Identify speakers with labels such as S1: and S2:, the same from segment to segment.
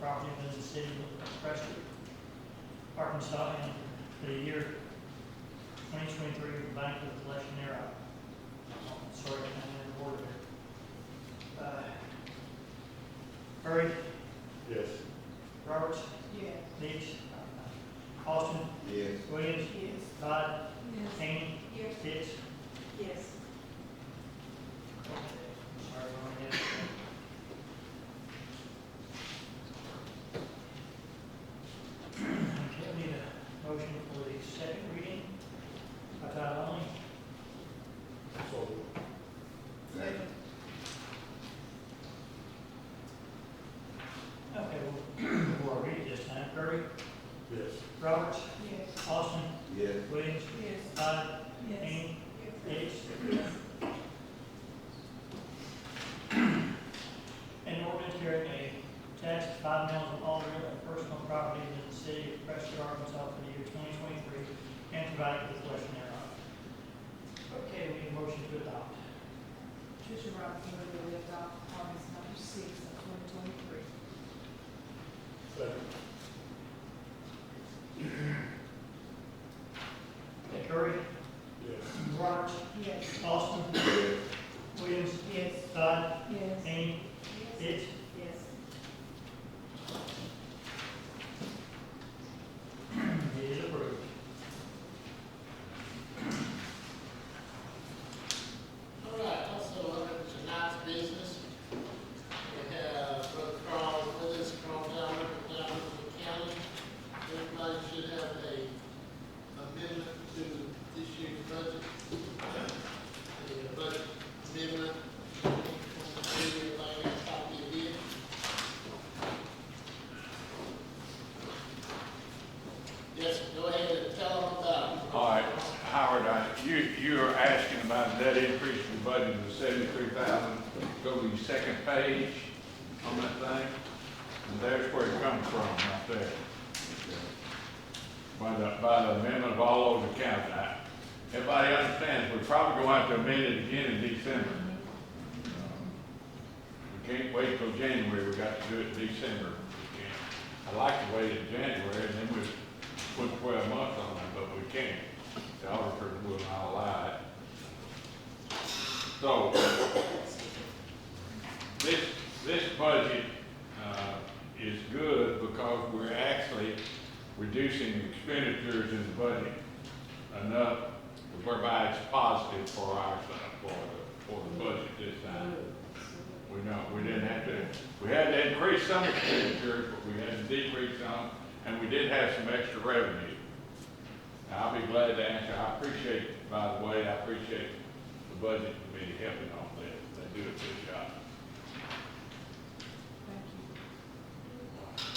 S1: property within the city of Preston, Arkansas, and for the year twenty twenty-three, combined with collection thereof. I'm Sorry, I'm in the word there. Uh, Murray,
S2: Yes.
S1: Roberts,
S3: Yes.
S1: Leach, Austin,
S2: Yes.
S1: Williams,
S3: Yes.
S1: Todd,
S3: Yes.
S1: Haney,
S3: Yes.
S1: Pitts.
S3: Yes.
S1: Okay, Sorry, I'm only in- Okay, I need a motion for the second reading by title only.
S2: So.
S3: Second.
S1: Okay, well, before I read it this time, Kirby,
S2: Yes.
S1: Roberts,
S3: Yes.
S1: Austin,
S2: Yes.
S1: Williams,
S3: Yes.
S1: Todd,
S3: Yes.
S1: Hany, Hicks. An ordinance carrying a tax of five mils of all real and personal property in the city of Preston, Arkansas for the year twenty twenty-three, and providing for the collection thereof. Okay, we need a motion to adopt.
S3: Tricia Robinson will be adopt ordinance number six of twenty twenty-three.
S2: Second.
S1: Okay, Curry,
S2: Yes.
S1: Roberts,
S3: Yes.
S1: Austin,
S2: Yes.
S1: Williams,
S3: Yes.
S1: Todd,
S3: Yes.
S1: Hany,
S3: Yes.
S1: Hicks.
S3: Yes.
S1: It is approved.
S4: All right, also under tonight's business, we have Brother Carl Willis from down, down in the county. Everybody should have a amendment to this year's budget. The budget amendment, everybody has a copy of it. Yes, go ahead and tell them about it.
S5: All right, Howard, I, you, you are asking about that increase in budget of seventy-three thousand, go to your second page on that thing, and there's where it comes from, right there. By the, by the amendment of all over the county, I, everybody understands, we're probably going to have to amend it again in December. We can't wait till January, we got to do it in December, we can't. I like to wait in January, and then we put twelve months on it, but we can't. The auditor will not allow it. So, this, this budget, uh, is good because we're actually reducing expenditures in the budget enough to provide positive for our, for the, for the budget this time. We don't, we didn't have to, we had to increase some expenditures, but we had to decrease some, and we did have some extra revenue. Now, I'll be glad to answer, I appreciate, by the way, I appreciate the budget committee helping on this, they do a good job.
S3: Thank you.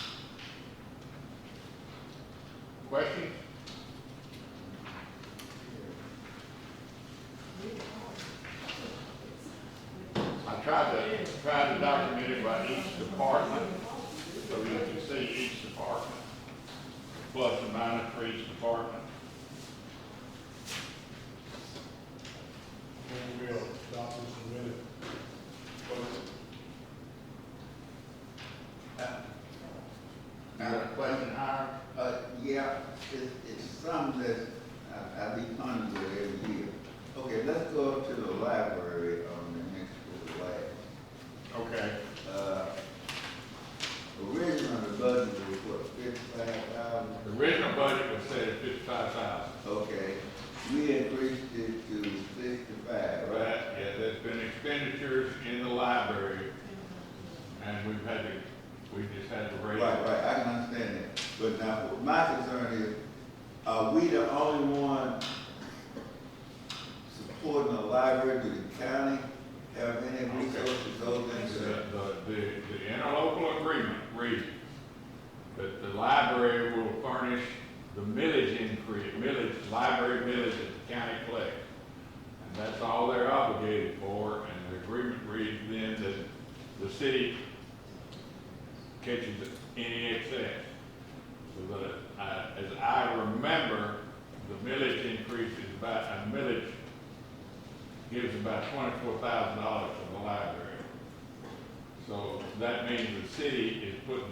S5: Questions?
S3: Read it
S5: I tried to, tried to document it by each department, so you can see each department, plus and minus for each department.
S2: We will adopt this in a minute.
S5: You got a question, Howard?
S6: Uh, yeah, it's, it's something that I, I be pondering every year. Okay, let's go up to the library on the next to the last.
S5: Okay,
S6: Uh, original the budget was what, fifty-five thousand?
S5: the original budget was set at fifty-five thousand.
S6: Okay, we increased it to sixty-five,
S5: Right,
S6: right?
S5: yeah, there's been expenditures in the library, and we've had to, we just had to raise.
S6: Right,
S5: it.
S6: right, I can understand that, but now, my concern is, are we the only one supporting the library, do the county have any resources other than
S5: The,
S6: the-
S5: the, the the interlocal agreement reads that the library will furnish the millage increase, millage, library millage that the county collects. And that's all they're obligated for, and the agreement reads then that the city catches any excess. So that, uh, as I remember, the millage increase is about, a millage gives about twenty-four thousand dollars to the library. So that means the city is putting